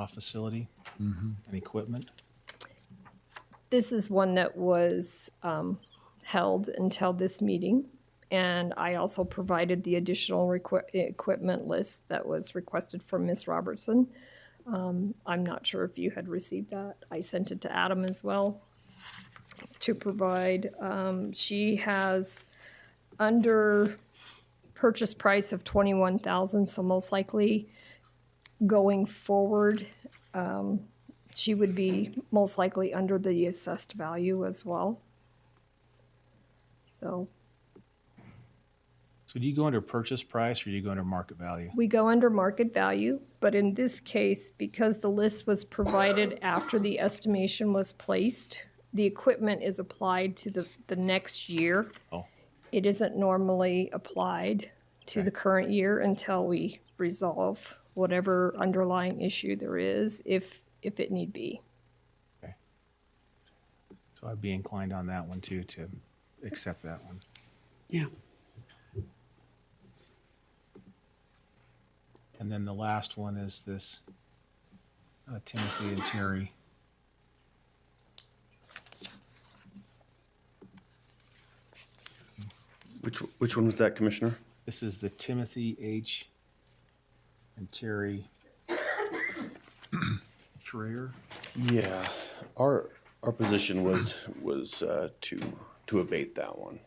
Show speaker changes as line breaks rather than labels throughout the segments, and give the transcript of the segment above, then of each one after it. uh, facility
Mm-hmm.
and equipment.
This is one that was um, held until this meeting. And I also provided the additional requ- equipment list that was requested from Ms. Robertson. Um, I'm not sure if you had received that. I sent it to Adam as well to provide. Um, She has under purchase price of 21,000, so most likely going forward, she would be most likely under the assessed value as well. So
So do you go under purchase price or do you go under market value?
we go under market value, but in this case, because the list was provided after the estimation was placed, the equipment is applied to the, the next year.
Oh.
It isn't normally applied to the current year until we resolve whatever underlying issue there is, if, if it need be.
So I'd be inclined on that one too, to accept that one.
Yeah.
And then the last one is this uh, Timothy and Terry.
Which, which one was that, Commissioner?
This is the Timothy H. and Terry Schreier.
Yeah, our, our position was, was uh, to, to abate that one.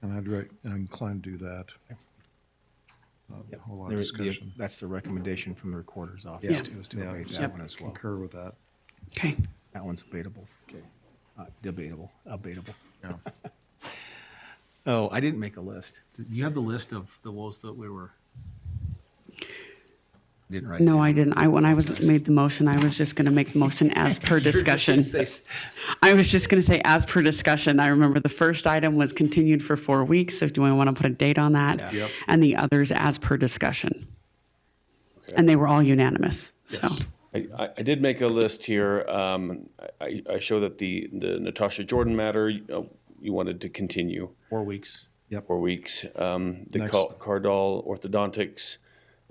And I'd rec- I'm inclined to do that. Not a whole lot
There
of
is the-
discussion.
That's the recommendation from the recorder's office too, is to
Yeah,
abate
I
that one as well.
Concur with that.
Okay.
That one's abatable. Okay. Uh, debatable, abatable.
Yeah.
Oh, I didn't make a list. Do you have the list of the wolves that we were? Didn't write.
No, I didn't. I, when I was, made the motion, I was just going to make the motion as per discussion. I was just going to say as per discussion. I remember the first item was continued for four weeks. So do we want to put a date on that?
Yep.
And the others as per discussion. And they were all unanimous. So,
I, I- I did make a list here. Um, I, I show that the, the Natasha Jordan matter, uh, you wanted to continue
Four weeks.
for weeks. Um, The Cal- Cardall orthodontics,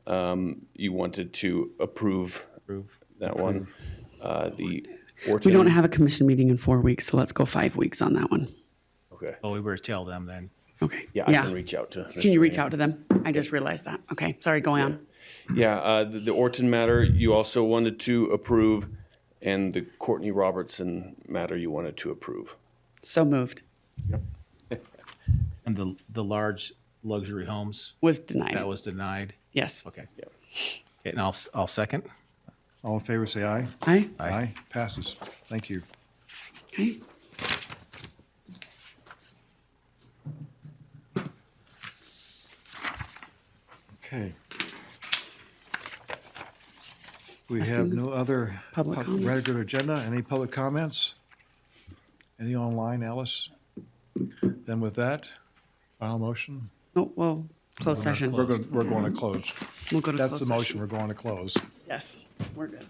um, you wanted to approve that one. Uh, The
we don't
Orton,
have a commission meeting in four weeks. So let's go five weeks on that one.
okay.
Well, we were to tell them then.
Okay.
Yeah, I can reach out to.
Can you
Mr.
reach out to them? I just realized that. Okay. Sorry, going on.
Yeah, uh, the, the Orton matter you also wanted to approve, and the Courtney Robertson matter you wanted to approve.
So moved.
And the, the large luxury homes,
Was denied.
that was denied.
Yes.
Okay. And I'll, s- I'll second.
All in favor, say aye.
Aye.
Aye. Passes. Thank you.
Okay.
Okay. We have no other
public
pub-
comment.
regular agenda. Any public comments? Any online, Alice? Then with that, final motion.
Oh, well, closed session.
We're going, we're going to close.
We'll go to
That's
closed
the motion.
session.
We're going to close.
Yes, we're good.